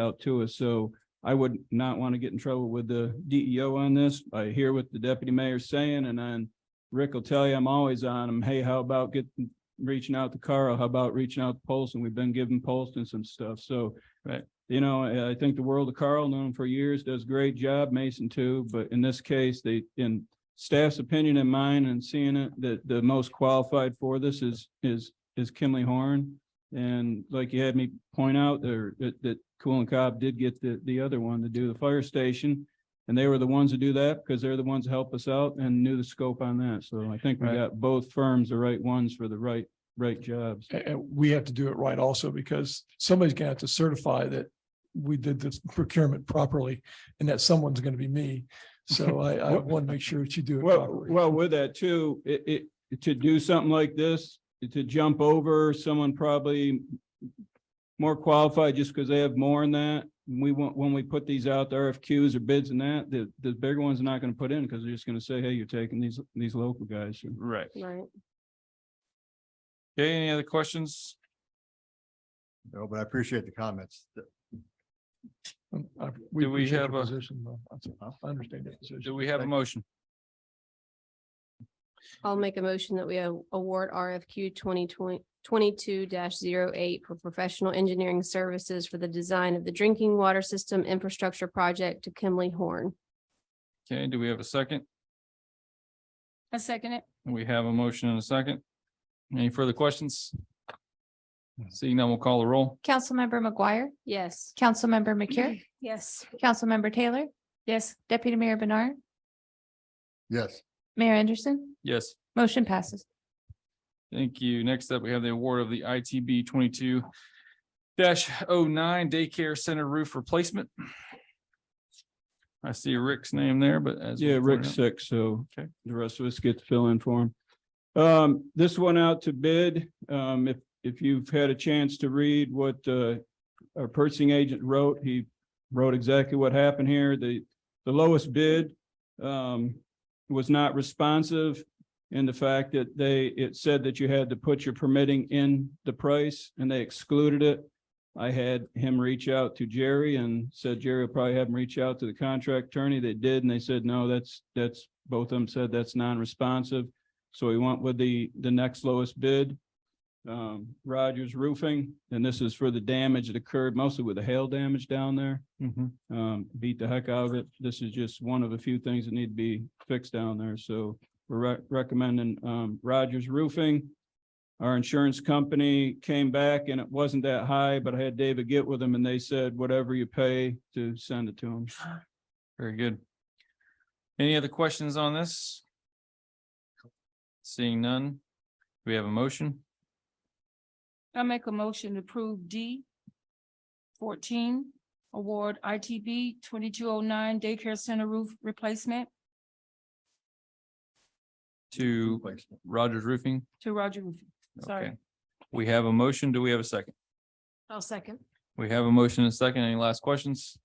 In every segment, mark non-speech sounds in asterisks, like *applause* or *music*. out to us. So I would not want to get in trouble with the DEO on this. I hear what the deputy mayor's saying and then Rick will tell you, I'm always on him. Hey, how about getting, reaching out to Carl? How about reaching out to Polson? We've been giving Polson some stuff. So Right. you know, I- I think the world of Carl, known him for years, does a great job, Mason too, but in this case, they, in staff's opinion and mine and seeing it, that the most qualified for this is, is, is Kimley Horn. And like you had me point out there, that, that Cool and Cobb did get the, the other one to do the fire station. And they were the ones to do that because they're the ones that help us out and knew the scope on that. So I think we Right. got both firms, the right ones for the right, right jobs. And, and we have to do it right also because somebody's gonna have to certify that we did this procurement properly and that someone's gonna be me. *laughs* So I, I want to make sure that you do it Well, properly. well, with that too, it, it, to do something like this, to jump over someone probably more qualified just because they have more in that, we want, when we put these out, the RFQs or bids and that, the, the bigger ones are not gonna put in because they're just gonna say, hey, you're taking these, these local guys. Right. Right. Okay, any other questions? No, but I appreciate the comments. Th- Um, I- do we appreciate have your a- Position, though. That's- I understand that position. Do we have a motion? I'll make a motion that we a- award RFQ twenty twenty, twenty-two 8 for professional engineering services for the design of the drinking water system infrastructure project to Kimley Horn. Okay, do we have a second? I second it. We have a motion and a second. Any further questions? Seeing none, we'll call the roll. Councilmember McGuire, Yes. Councilmember McCure, Yes. Councilmember Taylor. Yes. Deputy Mayor Bernard, Yes, Mayor Anderson, Yes, motion passes. thank you. Next up, we have the award of the ITB twenty-two 9 daycare center roof replacement. I see Rick's name there, but as. we Yeah, pointed Rick's out- sick, so Okay. the rest of us get to fill in for him. Um, this went out to bid. Um, if, if you've had a chance to read what, uh, our purchasing agent wrote, he wrote exactly what happened here. The, the lowest bid, um, was not responsive in the fact that they, it said that you had to put your permitting in the price and they excluded it. I had him reach out to Jerry and said Jerry will probably have him reach out to the contract attorney. They did, and they said, no, that's, that's, both of them said that's non-responsive. So we went with the, the next lowest bid, um, Rogers Roofing, and this is for the damage that occurred mostly with the hail damage down there. Mhm. Um, beat the heck out of it. This is just one of a few things that need to be fixed down there, so we're rec- recommending, um, Rogers Roofing. Our insurance company came back and it wasn't that high, but I had David get with them and they said, whatever you pay to send it to them. Very good. Any other questions on this? Seeing none, we have a motion. I make a motion to approve D fourteen, award ITB twenty-two oh nine daycare center roof replacement To placement. Rogers Roofing. to Roger. Roof. Okay. Sorry. We have a motion. Do we have a second? I'll second. We have a motion and a second. Any last questions?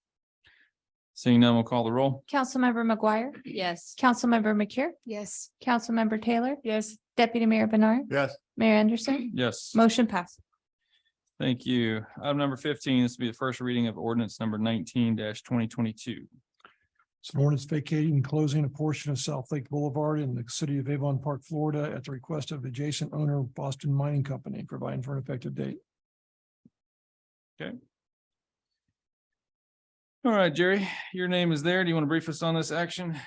Seeing none, we'll call the roll. Councilmember McGuire, Yes. Councilmember McCure. Yes. Councilmember Taylor, Yes, Deputy Mayor Bernard, yes, Mayor Anderson, Yes, motion passes. thank you. Item number fifteen, this will be the first reading of ordinance number nineteen twenty twenty-two. It's an ordinance vacating and closing a portion of South Lake Boulevard in the city of Avon Park, Florida at the request of adjacent owner Boston Mining Company, providing for an effective date. All right, Jerry, your name is there. Do you want to brief us on this action?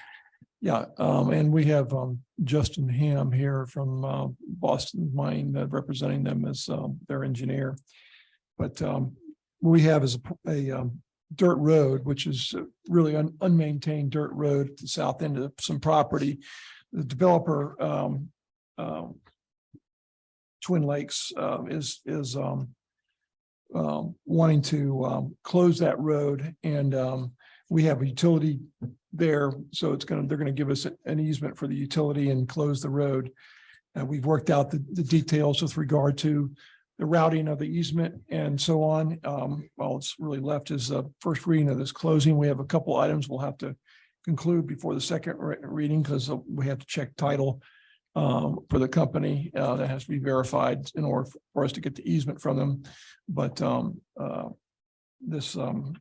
Yeah, um, and we have, um, Justin Ham here from, uh, Boston Mine, uh, representing them as, um, their engineer. But, um, what we have is a, p- a, um, dirt road, which is a really un- unmaintained dirt road at the south end of some property. The developer, um, um, Twin Lakes, um, is, is, um, um, wanting to, um, close that road and, um, we have a utility there, so it's gonna, they're gonna give us an easement for the utility and close the road. And we've worked out the, the details with regard to the routing of the easement and so on. Um, all it's really left is the first reading of this closing. We have a couple items we'll have to conclude before the second re- reading, because we have to check title um, for the company, uh, that has to be verified in order for us to get the easement from them. But, um, uh, this, um,